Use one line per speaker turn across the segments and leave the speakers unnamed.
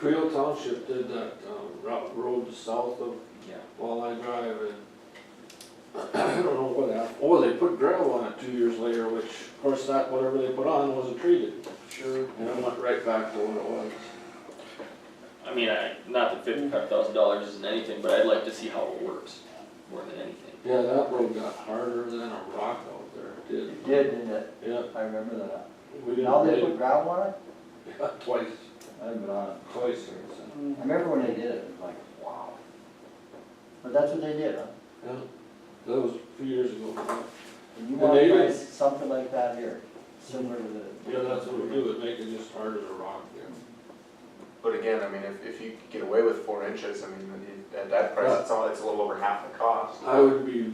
Creel Township did that, um, route, road south of
Yeah.
Walleye Drive and I don't know what happened, oh, they put gravel on it two years later, which, of course, that, whatever they put on wasn't treated.
Sure.
And it went right back to what it was.
I mean, I, not that fifty-five thousand dollars isn't anything, but I'd like to see how it works, more than anything.
Yeah, that road got harder than a rock out there, it did,
It did, didn't it?
yeah.
I remember that.
We
Now
didn't,
they
pay-
put gravel on it?
yeah, twice,
I didn't go on it.
twice or something.
I remember when they did it, it was like, wow. But that's what they did, huh?
Yeah, that was a few years ago. yeah.
And you
And
want
they
to
did.
try something like that here, similar to the.
Yeah, that's what we do, it make it just harder to rock there.
But again, I mean, if, if you could get away with four inches, I mean, you- at that price, it's all, it's a little over half the cost.
I would be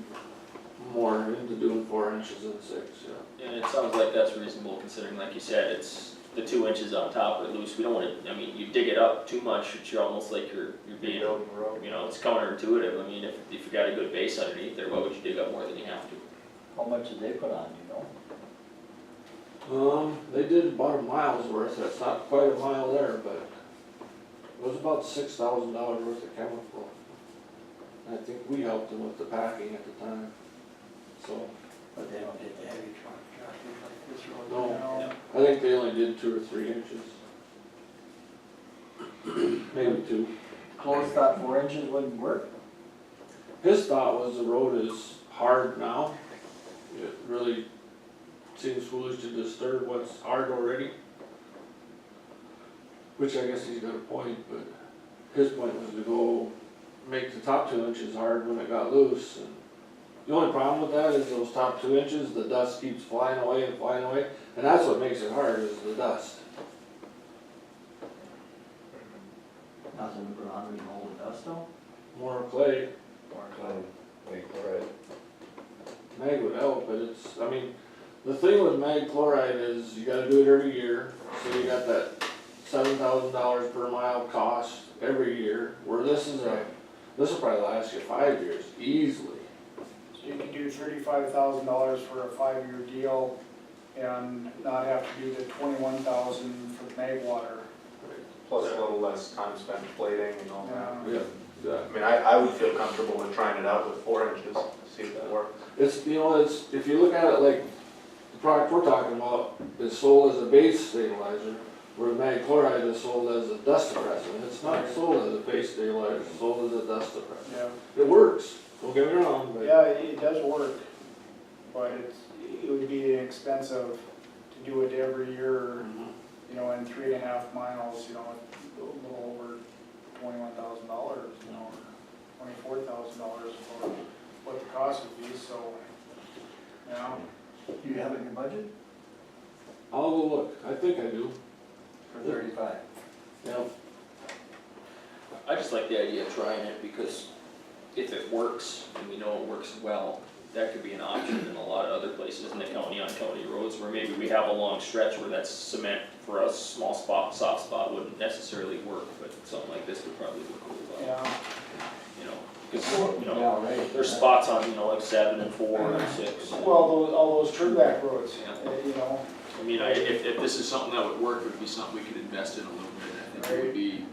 more into doing four inches than six, yeah.
And it sounds like that's reasonable considering, like you said, it's the two inches on top are loose, we don't wanna, I mean, you dig it up too much, it's you're almost like you're, you're
You
being,
build a road.
you know, it's counterintuitive, I mean, if, if you got a good base underneath there, why would you dig up more than you have to?
How much did they put on, do you know?
Um, they did about a mile's worth, that's not quite a mile there, but it was about six thousand dollars worth of chemical. And I think we helped them with the packing at the time, so,
But they don't get the heavy truck, tractors like this road.
No.
now.
I think they only did two or three inches. Maybe two.
Close thought four inches wouldn't work.
His thought was the road is hard now. It really seems foolish to disturb what's hard already. Which I guess he's got a point, but his point was to go make the top two inches hard when it got loose. and The only problem with that is those top two inches, the dust keeps flying away and flying away, and that's what makes it hard is the dust.
Nothing but a hundred and old dust though.
More clay,
Wait, all right.
Mag would help, but it's, I mean, the thing with mag chloride is you gotta do it every year, so you got that seven thousand dollars per mile cost every year, where this is a, this will probably last you five years easily.
So you can do thirty-five thousand dollars for a five-year deal and not have to do the twenty-one thousand for the mag water.
Plus a little less time spent plating and all that.
Yeah,
I mean, I, I would feel comfortable with trying it out with four inches, see if it works.
It's, you know, it's, if you look at it like, the product we're talking about is sold as a base stabilizer, where mag chloride is sold as a dust suppressant, it's not sold as a base stabilizer, it's sold as a dust suppressant.
Yeah,
It works, don't get me wrong, but.
yeah, it it does work, but it's, it would be expensive to do it every year,
Mm-hmm.
you know, in three and a half miles, you know, a little over twenty-one thousand dollars, you know, twenty-four thousand dollars for what the cost would be, so, you know.
Do you have it in your budget?
I'll go look, I think I do,
For thirty-five.
yeah.
I just like the idea of trying it because if it works and we know it works well, that could be an option in a lot of other places in the county on county roads where maybe we have a long stretch where that's cement for us, small spot, soft spot wouldn't necessarily work, but something like this would probably work really well,
Yeah,
you know? Cause, you know,
Yeah, right.
there's spots on, you know, like seven and four and six.
well, those, all those turnback roads,
Yeah.
uh, you know.
I mean, I, if, if this is something that would work, it would be something we could invest in a little bit, I think it would be,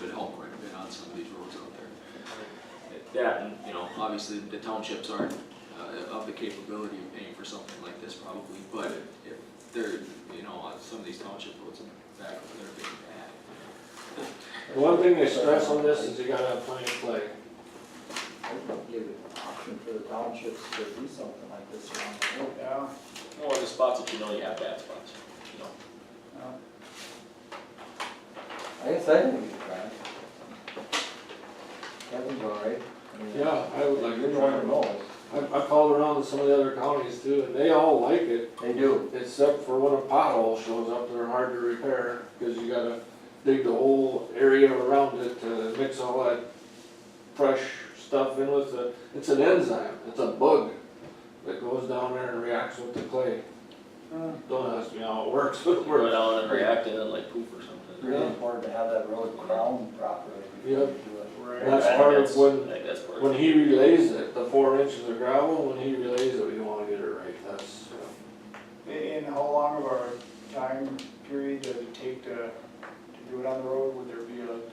would help quite a bit on some of these roads out there. That, and, you know, obviously, the townships aren't, uh, of the capability of paying for something like this probably, but if they're, you know, on some of these township roads in the back, they're big bad.
One thing they stress on this is you gotta have plenty of clay.
I would Give an option for the townships to do something like this around the world.
Yeah,
Well, the spots that you know you have bad spots, you know.
yeah.
I guess I think we could try it. Kevin's all right. I mean,
Yeah, I would like
You're
to
the
try
one who
it.
knows.
I, I called around to some of the other counties too, and they all like it,
They do.
except for when a pothole shows up, they're hard to repair, cause you gotta dig the whole area around it to mix all that fresh stuff in with the, it's an enzyme, it's a bug that goes down there and reacts with the clay.
Hmm.
Don't ask me how it works, but it
We're
works.
down and reacting and like poop or something.
Really important to have that road crowned properly before you do it.
Right.
That's
I think
part of
that's-
when-
I think that's part of
When he relays it, the four inches of gravel, when he relays it, we wanna get it right, that's, uh,
And how long of a time period does it take to, to do it on the road, would there be a